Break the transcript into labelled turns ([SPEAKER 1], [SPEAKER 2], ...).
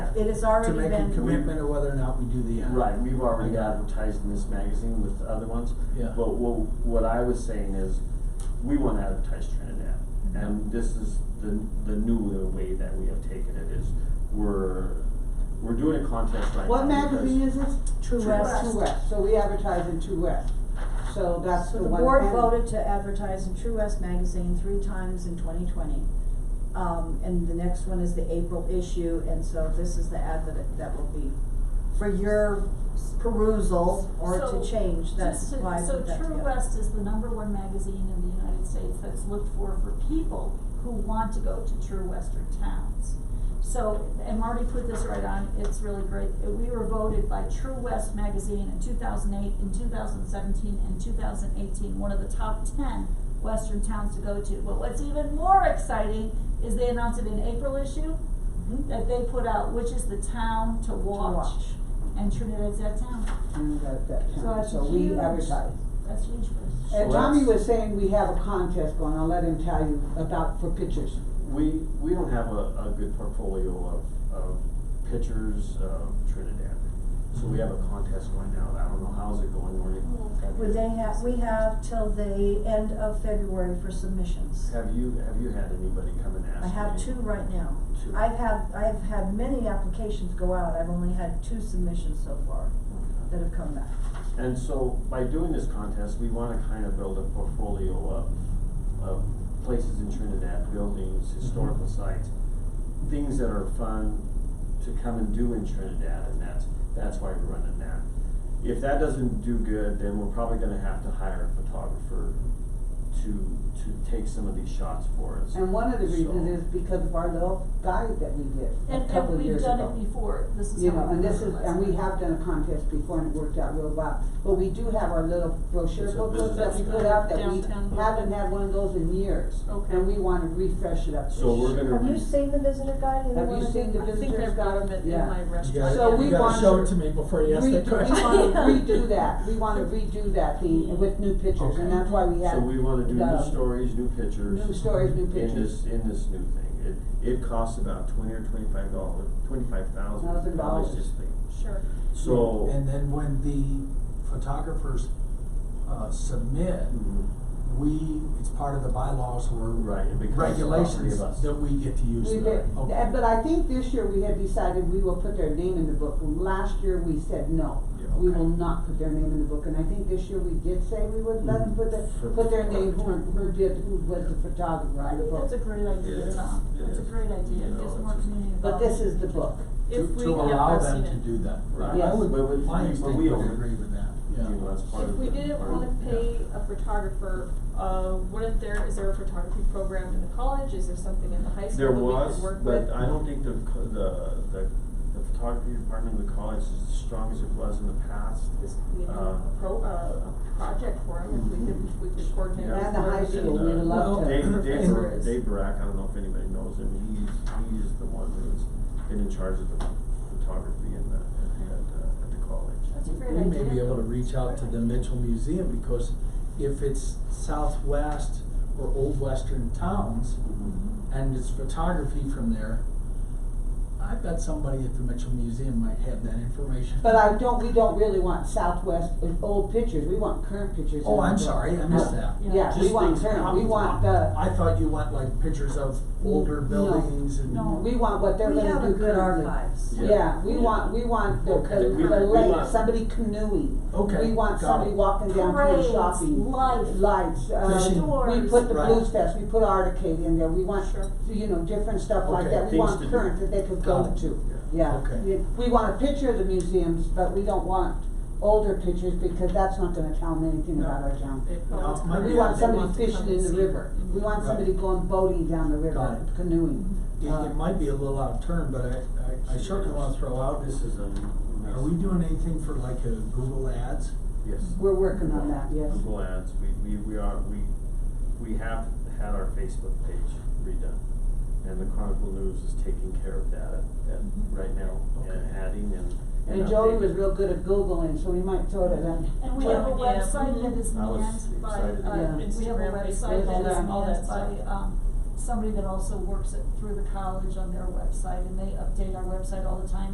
[SPEAKER 1] it has already
[SPEAKER 2] To make a
[SPEAKER 1] been,
[SPEAKER 2] commitment of whether or not we do the ad.
[SPEAKER 3] Right, we've already
[SPEAKER 2] I got it.
[SPEAKER 3] advertised in this magazine with the other ones.
[SPEAKER 2] Yeah.
[SPEAKER 3] But what, what I was saying is, we wanna advertise Trinidad.
[SPEAKER 1] Mm-hmm.
[SPEAKER 3] And this is the, the new way that we have taken it is, we're, we're doing a contest right now.
[SPEAKER 4] What magazine is it?
[SPEAKER 1] True
[SPEAKER 3] True
[SPEAKER 1] West.
[SPEAKER 4] True West, so we advertise in True West, so that's
[SPEAKER 1] So
[SPEAKER 4] the
[SPEAKER 1] the
[SPEAKER 4] one.
[SPEAKER 1] board
[SPEAKER 4] and-
[SPEAKER 1] voted to advertise in True West magazine three times in twenty twenty. Um, and the next one is the April issue, and so this is the ad that, it- that will be for your perusal or
[SPEAKER 5] So,
[SPEAKER 1] to change, that's
[SPEAKER 5] Just to-
[SPEAKER 1] why I put that
[SPEAKER 5] So True
[SPEAKER 1] together.
[SPEAKER 5] West is the number one magazine in the United States that's looked for for people who want to go to true western towns. So, and Marty put this right on, it's really great, Uh, we were voted by True West magazine in two thousand eight, in two thousand seventeen, and two thousand eighteen, one of the top ten western towns to go to. But what's even more exciting is they announced it in April issue,
[SPEAKER 4] Mm-hmm.
[SPEAKER 1] Mhm.
[SPEAKER 5] that they put out, which is the town to watch,
[SPEAKER 1] watch.
[SPEAKER 5] and Trinidad's that town,
[SPEAKER 4] And that, that
[SPEAKER 5] So
[SPEAKER 4] town,
[SPEAKER 5] that's
[SPEAKER 4] so we
[SPEAKER 5] huge.
[SPEAKER 4] advertise.
[SPEAKER 5] that's huge for us.
[SPEAKER 3] So
[SPEAKER 4] And Tommy
[SPEAKER 3] that's-
[SPEAKER 4] was saying we have a contest going, I'll let him tell you about, for pictures.
[SPEAKER 3] We, we don't have a, a good portfolio of, of pictures of Trinidad. So we have a contest going now, I don't know, how's it going, Lori?
[SPEAKER 1] Would they have, we have till the end of February for submissions.
[SPEAKER 3] Have you, have you had anybody come and ask
[SPEAKER 1] I have
[SPEAKER 3] me?
[SPEAKER 1] two right now.
[SPEAKER 3] Two.
[SPEAKER 1] I've had, I've had many applications go out, I've only had two submissions so far that have come back.
[SPEAKER 3] And so by doing this contest, we wanna kind of build a portfolio of, of places in Trinidad,
[SPEAKER 4] Mm-hmm.
[SPEAKER 3] buildings, historical sites, things that are fun to come and do in Trinidad, and that's, that's why we're running that. If that doesn't do good, then we're probably gonna have to hire a photographer to, to take some of these shots for us.
[SPEAKER 4] And one of the
[SPEAKER 3] So-
[SPEAKER 4] reasons is because of our little guide that we did a
[SPEAKER 5] And,
[SPEAKER 4] couple
[SPEAKER 5] and
[SPEAKER 4] of
[SPEAKER 5] we've
[SPEAKER 4] years ago.
[SPEAKER 5] done it before, this is
[SPEAKER 4] You know,
[SPEAKER 5] how we
[SPEAKER 4] and
[SPEAKER 5] did it
[SPEAKER 4] this is,
[SPEAKER 5] last
[SPEAKER 4] and we
[SPEAKER 5] time.
[SPEAKER 4] have done a contest before and it worked out real well, but we do have our little brochure
[SPEAKER 3] It's a
[SPEAKER 4] booklets that we
[SPEAKER 3] business
[SPEAKER 4] put out that we
[SPEAKER 6] Downtown.
[SPEAKER 4] haven't had one of those in years.
[SPEAKER 6] Okay.
[SPEAKER 4] And we wanna refresh it up this
[SPEAKER 3] So we're
[SPEAKER 4] year.
[SPEAKER 3] gonna.
[SPEAKER 1] Have you
[SPEAKER 3] re-
[SPEAKER 1] seen the visitor guide? Either
[SPEAKER 4] Have you
[SPEAKER 1] one of
[SPEAKER 4] seen the
[SPEAKER 1] you?
[SPEAKER 6] I think
[SPEAKER 4] visitors
[SPEAKER 6] I've
[SPEAKER 4] got
[SPEAKER 6] got
[SPEAKER 4] them
[SPEAKER 6] them
[SPEAKER 4] yeah.
[SPEAKER 6] in my
[SPEAKER 2] You
[SPEAKER 6] restaurant.
[SPEAKER 4] So
[SPEAKER 2] gotta,
[SPEAKER 4] we
[SPEAKER 2] you gotta
[SPEAKER 4] want
[SPEAKER 2] show
[SPEAKER 4] to-
[SPEAKER 2] it to me before you ask that
[SPEAKER 4] Redo-
[SPEAKER 2] question.
[SPEAKER 4] We wanna redo that, we wanna redo that thing with new pictures,
[SPEAKER 2] Okay.
[SPEAKER 4] and that's why we
[SPEAKER 3] So
[SPEAKER 4] have
[SPEAKER 3] we wanna do new
[SPEAKER 4] the-
[SPEAKER 3] stories, new pictures.
[SPEAKER 4] new stories, new
[SPEAKER 3] in
[SPEAKER 4] pictures.
[SPEAKER 3] this, in this new thing. It, it costs about twenty or twenty-five dollars, twenty-five thousand
[SPEAKER 4] Thousand
[SPEAKER 3] dollars
[SPEAKER 4] dollars.
[SPEAKER 3] this thing.
[SPEAKER 5] Sure.
[SPEAKER 3] So,
[SPEAKER 2] And then when the photographers, uh, submit,
[SPEAKER 3] Mhm.
[SPEAKER 6] Mm-hmm.
[SPEAKER 2] we, it's part of the bylaws or
[SPEAKER 3] right, it becomes property of us.
[SPEAKER 2] regulations that we get to use
[SPEAKER 4] We
[SPEAKER 2] that.
[SPEAKER 4] did,
[SPEAKER 2] Okay.
[SPEAKER 4] and- but I think this year we had decided we will put their name in the book, last year we said no.
[SPEAKER 3] Yeah,
[SPEAKER 4] We
[SPEAKER 3] okay.
[SPEAKER 4] will not put their name in the book, and I think this year we did say we would let them put the,
[SPEAKER 3] For-
[SPEAKER 4] put their name, who,
[SPEAKER 3] for-
[SPEAKER 4] who did, who was the photographer
[SPEAKER 5] I
[SPEAKER 4] on the
[SPEAKER 5] think that's a
[SPEAKER 4] book.
[SPEAKER 5] great
[SPEAKER 3] It
[SPEAKER 5] idea,
[SPEAKER 3] is,
[SPEAKER 5] Tom,
[SPEAKER 3] it
[SPEAKER 5] that's a
[SPEAKER 3] is.
[SPEAKER 5] great idea,
[SPEAKER 3] You
[SPEAKER 5] it gives
[SPEAKER 3] know,
[SPEAKER 5] more
[SPEAKER 3] it's-
[SPEAKER 5] community involvement.
[SPEAKER 4] But this is the book,
[SPEAKER 6] If
[SPEAKER 2] To,
[SPEAKER 6] we
[SPEAKER 2] to
[SPEAKER 6] have
[SPEAKER 2] allow
[SPEAKER 6] not
[SPEAKER 2] them
[SPEAKER 6] seen
[SPEAKER 2] to
[SPEAKER 6] it.
[SPEAKER 2] do that.
[SPEAKER 3] Right.
[SPEAKER 2] I
[SPEAKER 4] Yes.
[SPEAKER 2] would,
[SPEAKER 3] But we-
[SPEAKER 2] my
[SPEAKER 3] but
[SPEAKER 2] instinct
[SPEAKER 3] we
[SPEAKER 2] would
[SPEAKER 3] own it.
[SPEAKER 2] agree with that,
[SPEAKER 3] You
[SPEAKER 2] yeah.
[SPEAKER 3] know, that's part
[SPEAKER 6] If
[SPEAKER 3] of
[SPEAKER 6] we
[SPEAKER 3] the-
[SPEAKER 6] didn't
[SPEAKER 3] part of
[SPEAKER 6] wanna
[SPEAKER 3] the-
[SPEAKER 6] pay a photographer, uh, wouldn't there, is there a photography program in the college, is there something in the high school
[SPEAKER 3] There
[SPEAKER 6] that we
[SPEAKER 3] was,
[SPEAKER 6] could work with?
[SPEAKER 3] but I don't think the, co- the, the, the photography department of the college is as strong as it was in the past.
[SPEAKER 6] This, we have
[SPEAKER 3] Uh,
[SPEAKER 6] a pro, uh, a project for him, if we could, if we could coordinate.
[SPEAKER 3] Yeah.
[SPEAKER 4] and the high
[SPEAKER 6] with-
[SPEAKER 4] school, we'd
[SPEAKER 3] And, uh,
[SPEAKER 2] Well,
[SPEAKER 4] love to.
[SPEAKER 3] Dave, Dave,
[SPEAKER 2] And-
[SPEAKER 3] Bar- Dave Barack, I don't know if anybody knows him, he's, he's the one who's been in charge of the photography in the, at, uh, at the college.
[SPEAKER 5] That's a great
[SPEAKER 2] We
[SPEAKER 5] idea.
[SPEAKER 2] may be able to reach out to the Mitchell Museum, because if it's southwest or old western towns, and it's photography from there, I bet somebody at the Mitchell Museum might have that information.
[SPEAKER 4] But I don't, we don't really want southwest, uh, old pictures, we want current pictures.
[SPEAKER 2] Oh,
[SPEAKER 4] in the
[SPEAKER 2] I'm
[SPEAKER 4] book.
[SPEAKER 2] sorry, I missed that.
[SPEAKER 5] Yeah.
[SPEAKER 4] Yeah, we
[SPEAKER 2] Just
[SPEAKER 4] want
[SPEAKER 2] things
[SPEAKER 4] current, we
[SPEAKER 2] out.
[SPEAKER 4] want the, Mm,
[SPEAKER 2] I thought you want like pictures of older
[SPEAKER 4] No.
[SPEAKER 2] buildings and.
[SPEAKER 5] No.
[SPEAKER 4] we want what they're
[SPEAKER 1] We
[SPEAKER 4] gonna do
[SPEAKER 1] have a
[SPEAKER 4] currently.
[SPEAKER 1] good archives.
[SPEAKER 3] Yeah.
[SPEAKER 4] Yeah, we want, we want the,
[SPEAKER 2] Okay.
[SPEAKER 4] the,
[SPEAKER 3] We-
[SPEAKER 4] the
[SPEAKER 3] we
[SPEAKER 4] lake,
[SPEAKER 3] want-
[SPEAKER 4] somebody canoeing.
[SPEAKER 2] Okay,
[SPEAKER 4] We want
[SPEAKER 2] got
[SPEAKER 4] somebody
[SPEAKER 2] it.
[SPEAKER 4] walking down to
[SPEAKER 5] Parades,
[SPEAKER 4] a shopping.
[SPEAKER 5] lights,
[SPEAKER 4] Lights,
[SPEAKER 2] Fishing.
[SPEAKER 4] uh, we
[SPEAKER 5] Doors.
[SPEAKER 4] put the
[SPEAKER 2] Right.
[SPEAKER 4] Blues Fest, we put Articade in there, we want,
[SPEAKER 6] Sure.
[SPEAKER 4] you know, different stuff like
[SPEAKER 2] Okay,
[SPEAKER 4] that, we
[SPEAKER 3] things
[SPEAKER 4] want
[SPEAKER 3] to do.
[SPEAKER 4] current that they could
[SPEAKER 2] Got
[SPEAKER 4] go
[SPEAKER 2] it.
[SPEAKER 4] to,
[SPEAKER 3] Yeah.
[SPEAKER 4] yeah.
[SPEAKER 2] Okay.
[SPEAKER 4] We- We want a picture of the museums, but we don't want older pictures because that's not gonna tell them anything
[SPEAKER 2] No.
[SPEAKER 4] about our town.
[SPEAKER 6] They
[SPEAKER 2] No,
[SPEAKER 6] always
[SPEAKER 2] my-
[SPEAKER 6] come
[SPEAKER 4] We
[SPEAKER 2] Yeah,
[SPEAKER 4] want
[SPEAKER 6] they
[SPEAKER 4] somebody
[SPEAKER 6] want to come
[SPEAKER 4] fishing
[SPEAKER 6] and
[SPEAKER 4] in the
[SPEAKER 6] see
[SPEAKER 4] river,
[SPEAKER 6] it.
[SPEAKER 4] we want
[SPEAKER 2] Right.
[SPEAKER 4] somebody going boating down the
[SPEAKER 2] Got
[SPEAKER 4] river,
[SPEAKER 2] it.
[SPEAKER 4] canoeing.
[SPEAKER 2] It,
[SPEAKER 4] Uh.
[SPEAKER 2] it might be a little out of turn, but I, I, I sure can wanna throw out,
[SPEAKER 3] This is a.
[SPEAKER 2] are we doing anything for like a Google Ads?
[SPEAKER 3] Yes.
[SPEAKER 4] We're working on that, yes.
[SPEAKER 3] Google ads, we, we, we are, we, we have had our Facebook page redone. And the Chronicle News is taking care of that, at right now, and
[SPEAKER 2] Okay.
[SPEAKER 3] adding and.
[SPEAKER 4] Mm-hmm. And Joey was
[SPEAKER 3] updating.
[SPEAKER 4] real good at Googling, so we might sort of, uh,
[SPEAKER 5] And we have a
[SPEAKER 6] Yeah.
[SPEAKER 5] website that is
[SPEAKER 3] I was
[SPEAKER 5] manned by,
[SPEAKER 3] excited.
[SPEAKER 5] uh,
[SPEAKER 4] Yeah.
[SPEAKER 5] we have a
[SPEAKER 6] Instagram,
[SPEAKER 5] website
[SPEAKER 6] Facebook,
[SPEAKER 5] that is
[SPEAKER 4] all
[SPEAKER 6] that
[SPEAKER 5] manned
[SPEAKER 6] stuff.
[SPEAKER 5] by, um, somebody that also works at, through the college on their website, and they update our website all the time,